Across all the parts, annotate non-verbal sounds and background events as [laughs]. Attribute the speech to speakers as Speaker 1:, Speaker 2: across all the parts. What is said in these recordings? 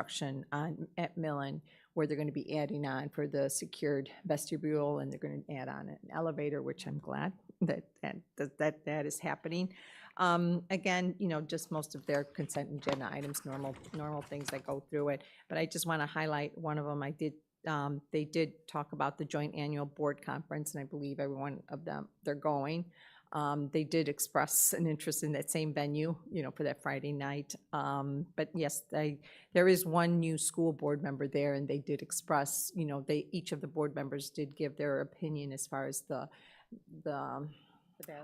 Speaker 1: construction on, at Millen, where they're gonna be adding on for the secured vestibule, and they're gonna add on an elevator, which I'm glad that, that, that- that, that is happening. Um, again, you know, just most of their consent agenda items, normal, normal things that go through it. But I just wanna highlight one of them, I did, um, they did talk about the joint annual board conference, and I believe everyone of them, they're going. Um, they did express an interest in that same venue, you know, for that Friday night. Um, but yes, they, there is one new school board member there and they did express, you know, they, each of the board members did give their opinion as far as the, the, um,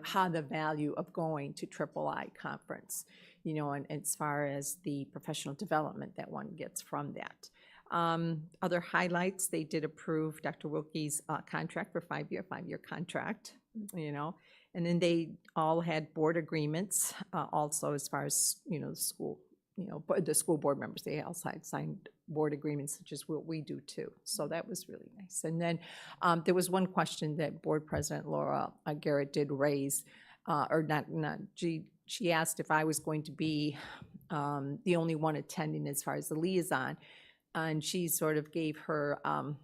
Speaker 1: how the value of going to Triple I conference, you know, and and as far as the professional development that one gets from that. Um, Other highlights, they did approve Dr. Wilkie's uh, contract for five-year, five-year contract, you know. And then they all had board agreements uh, also as far as, you know, the school, you know, but the school board members, they all signed, signed board agreements, such as what we do too. So that was really nice. And then um, There was one question that Board President Laura uh, Garrett did raise, uh, or not, not, she, she asked if I was going to be um, the only one attending as far as the liaison. And she sort of gave her, um,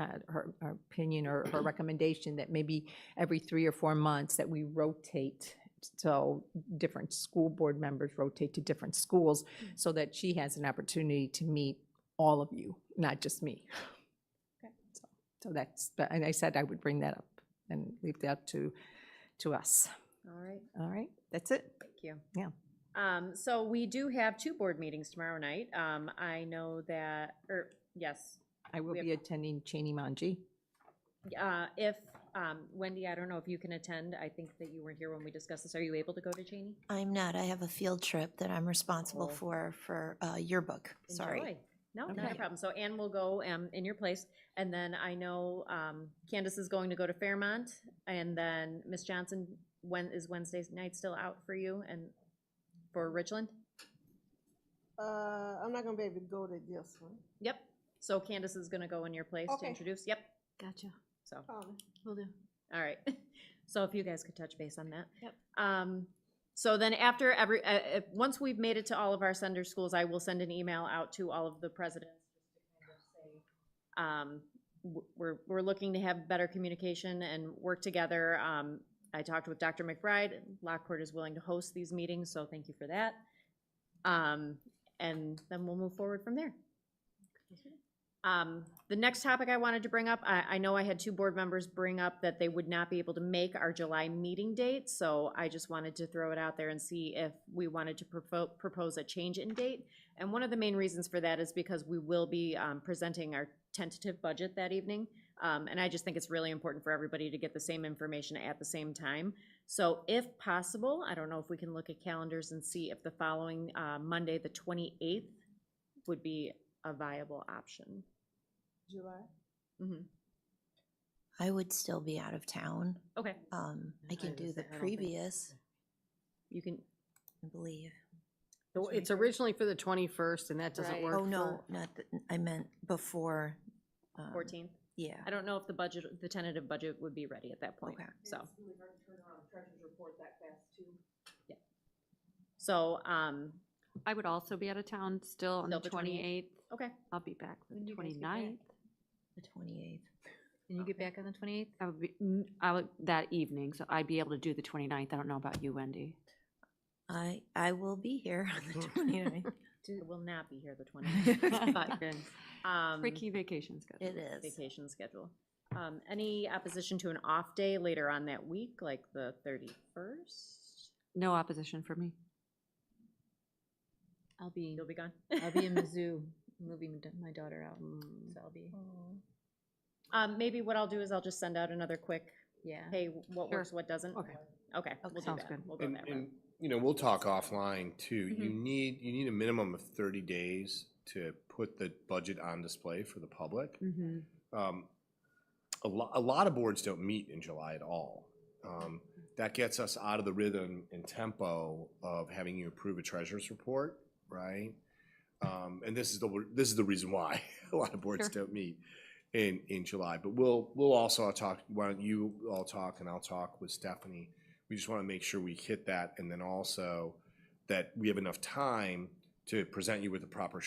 Speaker 1: uh, her her opinion or her recommendation that maybe every three or four months that we rotate. So different school board members rotate to different schools
Speaker 2: Mm.
Speaker 1: so that she has an opportunity to meet all of you, not just me. So- So that's, but- and I said I would bring that up and leave that to, to us.
Speaker 3: All right,
Speaker 1: All right, that's it.
Speaker 3: thank you.
Speaker 1: Yeah.
Speaker 3: Um, so we do have two board meetings tomorrow night. Um, I know that, or, yes,
Speaker 1: I will
Speaker 3: We have-
Speaker 1: be attending Cheney Manji.
Speaker 3: uh, if, um, Wendy, I don't know if you can attend. I think that you weren't here when we discussed this. Are you able to go to Cheney?
Speaker 4: I'm not. I have a field trip that I'm responsible
Speaker 3: Oh.
Speaker 4: for for uh, yearbook. Sorry.
Speaker 3: Enjoy. No, not a
Speaker 1: Okay.
Speaker 3: problem. So Anne will go, um, in your place. And then I know, um, Candace is going to go to Fairmont. And then Miss Johnson, when, is Wednesday night still out for you and for Richland?
Speaker 5: Uh, I'm not gonna be able to go to this one.
Speaker 3: Yep. So Candace is gonna go in your place to
Speaker 5: Okay.
Speaker 3: introduce. Yep.
Speaker 6: Gotcha.
Speaker 3: So.
Speaker 5: Um,
Speaker 6: Will do.
Speaker 3: All right. [laughs] So if you guys could touch base on that.
Speaker 6: Yep.
Speaker 3: Um, so then after every, uh, if, once we've made it to all of our sender schools, I will send an email out to all of the presidents. Um, w- we're, we're looking to have better communication and work together. Um, I talked with Dr. McBride. Lockport is willing to host these meetings, so thank you for that. Um, and then we'll move forward from there. Um, The next topic I wanted to bring up, I, I know I had two board members bring up that they would not be able to make our July meeting date, so I just wanted to throw it out there and see if we wanted to propo- propose a change in date. And one of the main reasons for that is because we will be um, presenting our tentative budget that evening. Um, And I just think it's really important for everybody to get the same information at the same time. So if possible, I don't know if we can look at calendars and see if the following uh, Monday, the 28th, would be a viable option.
Speaker 5: July.
Speaker 3: Mhm.
Speaker 4: I would still be out of town.
Speaker 3: Okay,
Speaker 4: Um, I can do the previous,
Speaker 3: you can,
Speaker 4: I believe.
Speaker 2: So It's originally for the 21st, and that
Speaker 3: Right.
Speaker 2: doesn't work.
Speaker 4: Oh, no,
Speaker 2: for-
Speaker 4: not, the- I meant before. um,
Speaker 3: 14th.
Speaker 4: Yeah.
Speaker 3: I don't know if the budget, the tentative budget would be ready at that point,
Speaker 4: Okay.
Speaker 3: so.
Speaker 5: really hard to turn around a treasurer's report that fast too.
Speaker 3: So, um,
Speaker 6: I would also be out of town still on
Speaker 3: Still
Speaker 6: the
Speaker 3: the 28th.
Speaker 6: twenty-eighth.
Speaker 3: okay,
Speaker 6: I'll be back for
Speaker 3: When do
Speaker 6: the
Speaker 3: you guys get back?
Speaker 6: twenty-ninth.
Speaker 4: The 28th.
Speaker 3: Can you get
Speaker 6: back on the twenty-eighth? I would be, n- I would, that evening, so I'd be able to do the twenty-ninth. I don't know about you, Wendy.
Speaker 4: I, I will be here on
Speaker 1: [laughs]
Speaker 4: [laughs] the 29th.
Speaker 3: I will not be here the 20th, but, um,
Speaker 6: Freaky vacation schedule.
Speaker 4: It is.
Speaker 3: vacation schedule. Um, any opposition to an off day later on that week, like the 31st?
Speaker 6: No opposition for me.
Speaker 3: I'll be. You'll be gone?
Speaker 7: I'll be in
Speaker 6: [laughs]
Speaker 7: Mizzou, moving d- my daughter out,
Speaker 3: Mm.
Speaker 7: so I'll be,
Speaker 3: [laughs] Um, maybe what I'll do is I'll just send out another quick,
Speaker 7: yeah.
Speaker 3: hey, what works, what doesn't?
Speaker 6: Okay.
Speaker 3: Okay, we'll do
Speaker 6: Sounds
Speaker 3: that.
Speaker 6: good.
Speaker 3: We'll go
Speaker 8: And,
Speaker 3: that route.
Speaker 8: Uh, and, you know, we'll talk offline too. You
Speaker 3: Mhm.
Speaker 8: need, you need a minimum of thirty days to put the budget on display for the public.
Speaker 6: Mm-hmm.
Speaker 8: Um, a lot, a lot of boards don't meet in July at all. Um, that gets us out of the rhythm and tempo of having you approve a treasurer's report, right? Um, and this is the, this is the reason why [laughs] a lot of boards
Speaker 6: Sure.
Speaker 8: don't meet in, in July. But we'll, we'll also talk, why don't you all talk and I'll talk with Stephanie. We just want to make sure we hit that and then also that we have enough time to present you with the proper